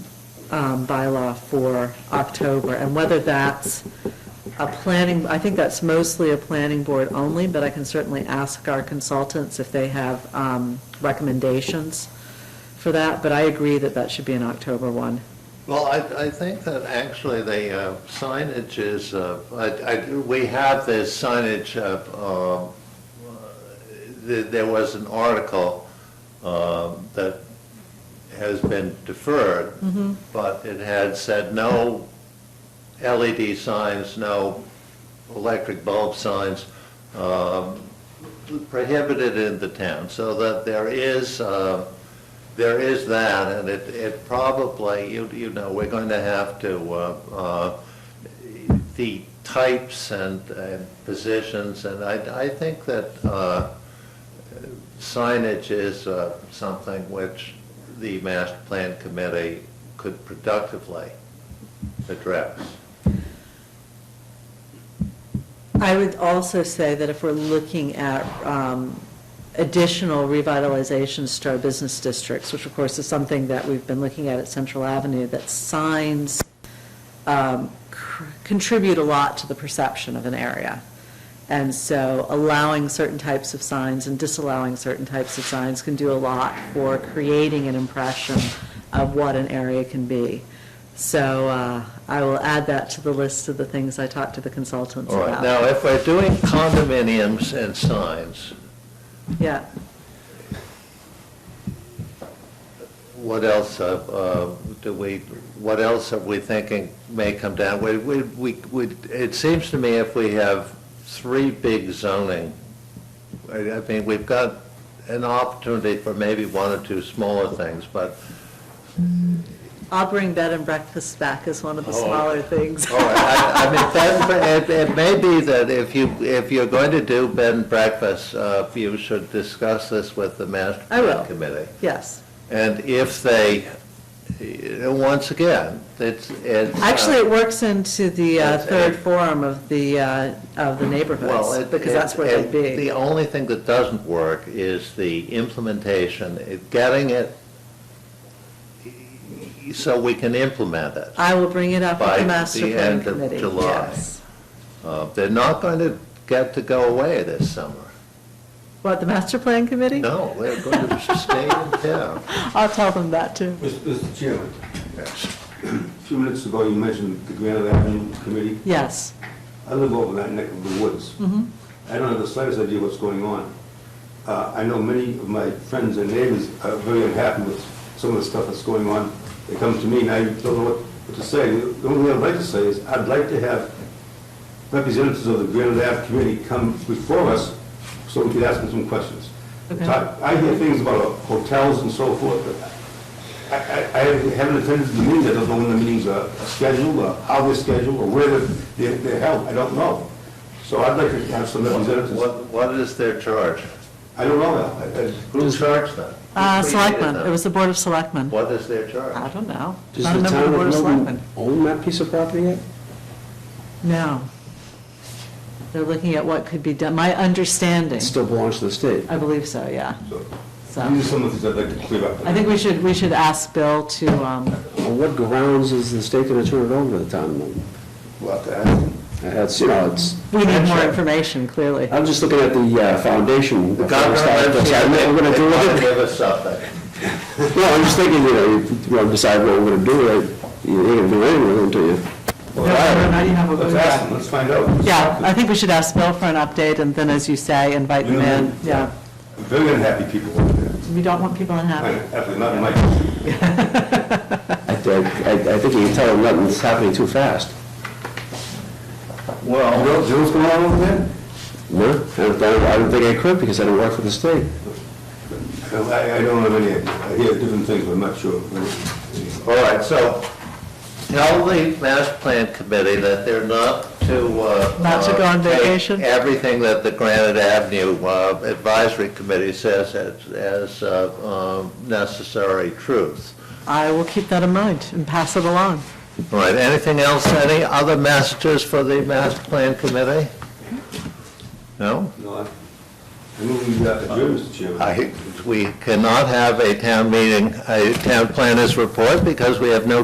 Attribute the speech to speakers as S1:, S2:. S1: um, bylaw for October, and whether that's a planning, I think that's mostly a planning board only, but I can certainly ask our consultants if they have um, recommendations for that, but I agree that that should be an October one.
S2: Well, I, I think that actually the uh, signage is, uh, I, I, we have this signage of, um, uh, th- there was an article, um, that has been deferred, but it had said no LED signs, no electric bulb signs, um, prohibited in the town, so that there is, uh, there is that, and it, it probably, you, you know, we're going to have to, uh, uh, the types and, and positions, and I, I think that uh, signage is uh, something which the master plan committee could productively address.
S1: I would also say that if we're looking at um, additional revitalizations to our business districts, which of course is something that we've been looking at at Central Avenue, that signs um, cr- contribute a lot to the perception of an area. And so allowing certain types of signs and disallowing certain types of signs can do a lot for creating an impression of what an area can be. So uh, I will add that to the list of the things I talked to the consultants
S2: All
S1: about.
S2: right, now, if we're doing condominiums and signs,
S1: Yeah,
S2: what else uh, uh, do we, what else are we thinking may come down? We, we, we, we- it seems to me if we have three big zoning, I I mean, we've got an opportunity for maybe one or two smaller things, but,
S1: I'll bring bed and breakfast back as one of the
S2: Oh,
S1: smaller things.
S2: all right, I I mean, bed and bre- it, it may be that if you, if you're going to do bed and breakfast, uh, you should discuss this with the master
S1: I will.
S2: plan committee.
S1: Yes.
S2: And if they, eh, once again, it's, it's. uh,
S1: Actually, it works into the uh,
S2: That's
S1: third
S2: it.
S1: forum of the, uh, of the
S2: Well,
S1: neighborhoods,
S2: it-
S1: because that's where
S2: it-
S1: they'd
S2: it- The
S1: be.
S2: only thing that doesn't work is the implementation, it- getting it so we can implement it.
S1: I will bring it up with
S2: By
S1: the master
S2: the
S1: plan
S2: end of
S1: committee.
S2: July.
S1: Yes.
S2: Uh, They're not going to get to go away this summer.
S1: What, the master plan committee?
S2: No, they're going to stay in town.
S1: I'll tell them that, too.
S3: Mr. Chairman, a few minutes ago, you mentioned the Granite Avenue Committee.
S1: Yes. Uh,
S3: I live over that neck of the woods. I don't have the slightest idea what's going on. Uh, I know many of my friends and neighbors are very unhappy with some of the stuff that's going on. They come to me, and I don't know what what to say. The only thing I'd like to say is, I'd like to have representatives of the Granite Ave community come before us so we could ask them some questions.
S1: Okay.
S3: I I hear things about hotels and so forth, but I I- I haven't attended the meetings, I don't know when the meetings are scheduled, or how they're scheduled, or where they're- they're they're held, I don't know. So I'd like to have some representatives.
S2: What, what is their charge?
S3: I don't know that. I- I-
S2: Who charged them? Who
S1: Uh,
S2: created
S1: Selectmen,
S2: them?
S1: it was the Board of Selectmen.
S2: What is their charge?
S1: I don't know.
S4: Does
S1: Not a
S4: the
S1: member
S4: town
S1: the Board
S4: of
S1: of
S4: Milton
S1: Selectmen.
S4: own that piece of property yet?
S1: No. They're looking at what could be done, my understanding.
S4: It still belongs to the state.
S1: I believe so, yeah.
S3: so
S1: So-
S3: These are some of the things I'd like to clear up.
S1: I think we should, we should ask Bill to, um,
S4: On what grounds is the state going to turn it over to the town of Milton?
S3: We'll have to ask them.
S4: That's, you know, it's,
S1: we need more information, clearly.
S4: I'm just looking at the uh, foundation.
S2: The governor lives here,
S4: I know
S2: they
S4: we're gonna do
S2: they wanna
S4: it.
S2: give us something.
S4: No, I'm just thinking, you know, if you wanna decide what we're going to do, right, you ain't going to do anything until you,
S1: No, no, no, you have a-
S3: Let's ask them, let's find out. Let's
S1: Yeah,
S3: talk to
S1: I
S3: them.
S1: think we should ask Bill for an update, and then, as you say, invite them in. Yeah,
S3: Very unhappy people over there.
S1: we don't want people unhappy.
S3: Actually, not in my district.
S4: I think, I I think you can tell them nothing's happening too fast.
S2: Well.
S3: You know you know what's going on over there?
S4: No, I don't, I don't think I could because I don't work for the state.
S3: I I don't have any, idea. I hear different things, but I'm not sure.
S2: All right, so tell the master plan committee that they're not to... uh,
S1: Not to go on
S2: uh, take
S1: vacation?
S2: Everything that the Granite Avenue uh, Advisory Committee says as- as uh, um, necessary truth.
S1: I will keep that in mind and pass it along.
S2: All right, anything else, any other messages for the master plan committee? No?
S3: No, I I move we uh, adjourn, Mr. Chairman.
S2: I- We cannot have a town meeting, a town planners report because we have no